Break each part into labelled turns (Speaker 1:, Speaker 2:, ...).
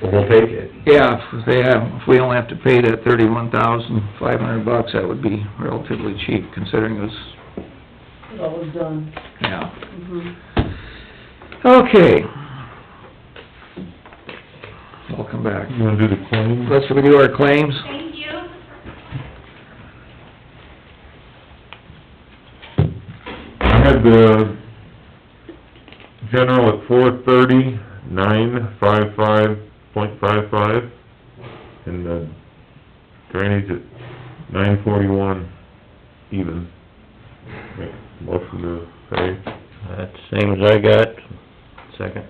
Speaker 1: so we'll take it.
Speaker 2: Yeah, if they have, if we only have to pay that thirty-one thousand five hundred bucks, that would be relatively cheap considering it was,
Speaker 3: It all was done.
Speaker 2: yeah.
Speaker 3: Mhm.
Speaker 2: Okay. I'll come back.
Speaker 4: You wanna do the claim?
Speaker 2: Let's review our claims.
Speaker 5: Thank you.
Speaker 4: I had the general at four thirty, nine five five point five five, and the drainage at nine forty-one even. Make a Motion to pay.
Speaker 6: That's the same as I got, second.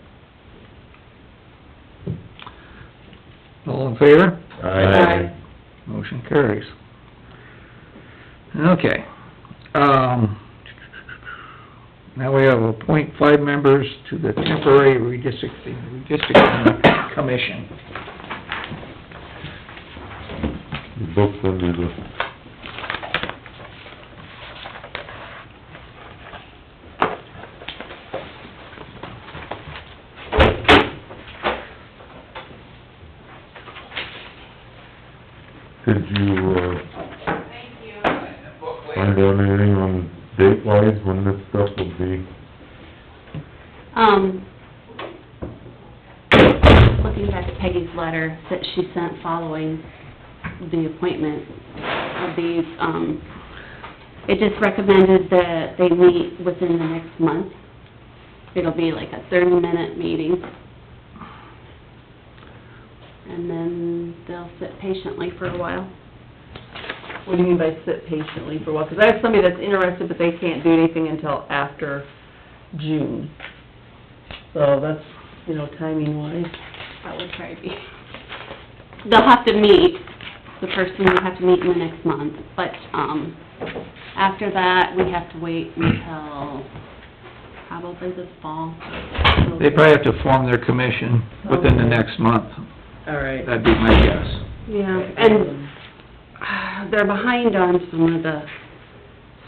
Speaker 2: All in favor?
Speaker 3: Aye.
Speaker 2: Motion carries. Okay, um, now we have appoint five members to the temporary redistricting, redistricting commission.
Speaker 4: The Book's under the, did you, uh,
Speaker 5: Thank you.
Speaker 4: find out anything on date wise when this stuff will be?
Speaker 7: Um, looking back at Peggy's letter that she sent following the appointment of these, um, it just recommended that they meet within the next month. It'll be like a thirty-minute meeting. And then they'll sit patiently for a while.
Speaker 3: What do you mean by sit patiently for a while? Because I have somebody that's interested, but they can't do anything until after June. So that's, you know, timing wise.
Speaker 7: That would probably be. They'll have to meet, the person will have to meet in the next month, but, um, after that, we have to wait until probably the fall.
Speaker 2: They probably have to form their commission within the next month,
Speaker 3: All right.
Speaker 2: that'd be my guess.
Speaker 7: Yeah, and uh, they're behind on some of the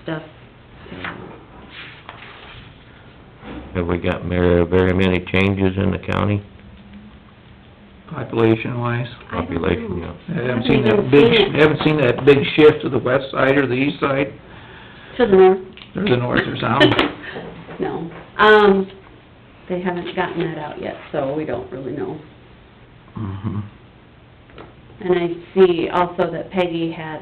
Speaker 7: stuff.
Speaker 6: Have we got very, very many changes in the county
Speaker 2: population wise.
Speaker 7: I don't know.
Speaker 6: population? yeah.
Speaker 2: I haven't seen that big, I haven't seen that big shift to the west side or the east side,
Speaker 7: To the north.
Speaker 2: or the north or south.
Speaker 7: No, um, they haven't gotten that out yet, so we don't really know.
Speaker 2: Mhm.
Speaker 7: And I see also that Peggy had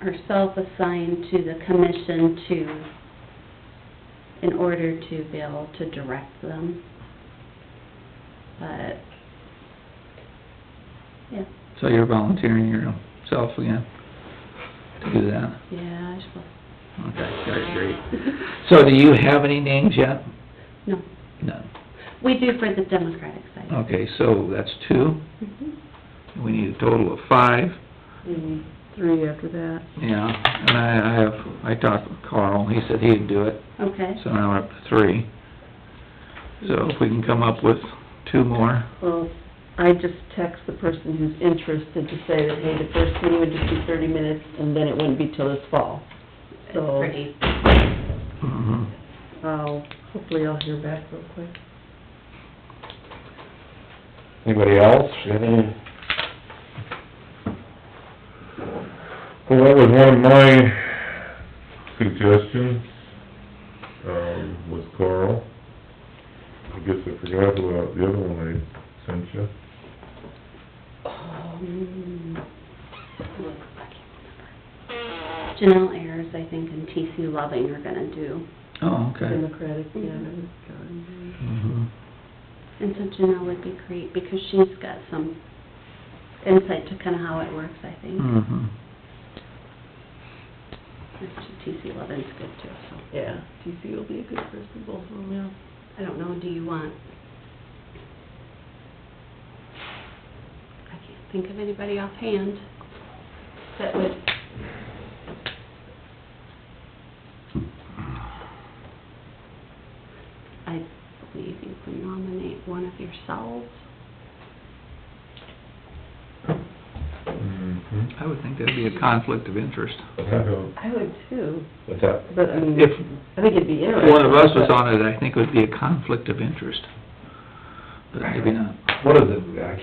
Speaker 7: herself assigned to the commission to, in order to be able to direct them. But, yeah,
Speaker 2: So you're volunteering yourself again to do that?
Speaker 7: yeah, I suppose.
Speaker 2: Okay, that's great. So do you have any names yet?
Speaker 7: No,
Speaker 2: None.
Speaker 7: we do for the Democratic side.
Speaker 2: Okay, so that's two.
Speaker 7: Mhm.
Speaker 2: We need a total of five.
Speaker 3: Maybe three after that.
Speaker 2: Yeah, and I, I have, I talked with Carl, he said he'd do it,
Speaker 7: Okay,
Speaker 2: so now we're up to three. So if we can come up with two more,
Speaker 3: Well, I just text the person who's interested to say that, hey, the first meeting would just be thirty minutes, and then it wouldn't be till this fall.
Speaker 7: it's
Speaker 3: So-
Speaker 7: pretty,
Speaker 2: mhm.
Speaker 3: I'll, hopefully I'll hear back real quick.
Speaker 1: Anybody else, any?
Speaker 4: Well, that was one of my suggestions, um, was Carl. I guess I forgot about the other one I sent you.
Speaker 7: um, look, I can't remember. Janelle Ayers, I think, and TC Loving are gonna do.
Speaker 2: Oh, okay.
Speaker 3: Democratic, yeah.
Speaker 7: Mhm.
Speaker 3: God.
Speaker 2: Mhm.
Speaker 7: And so Janelle would be great, because she's got some insight to kind of how it works, I think.
Speaker 2: Mhm.
Speaker 7: TC Levin's good too, so.
Speaker 3: Yeah, TC will be a good person, both of them, yeah.
Speaker 7: I don't know, do you want? I can't think of anybody offhand that would, I believe you can nominate one of yourselves.
Speaker 4: Mm-hmm.
Speaker 2: I would think that'd be a conflict of interest.
Speaker 4: I don't,
Speaker 3: I would too,
Speaker 1: What's that?
Speaker 3: but I mean,
Speaker 2: If
Speaker 3: I think it'd be interesting.
Speaker 2: one of us was
Speaker 3: but-
Speaker 2: on it, I think it would be a conflict of interest. But maybe not.
Speaker 1: What is it, I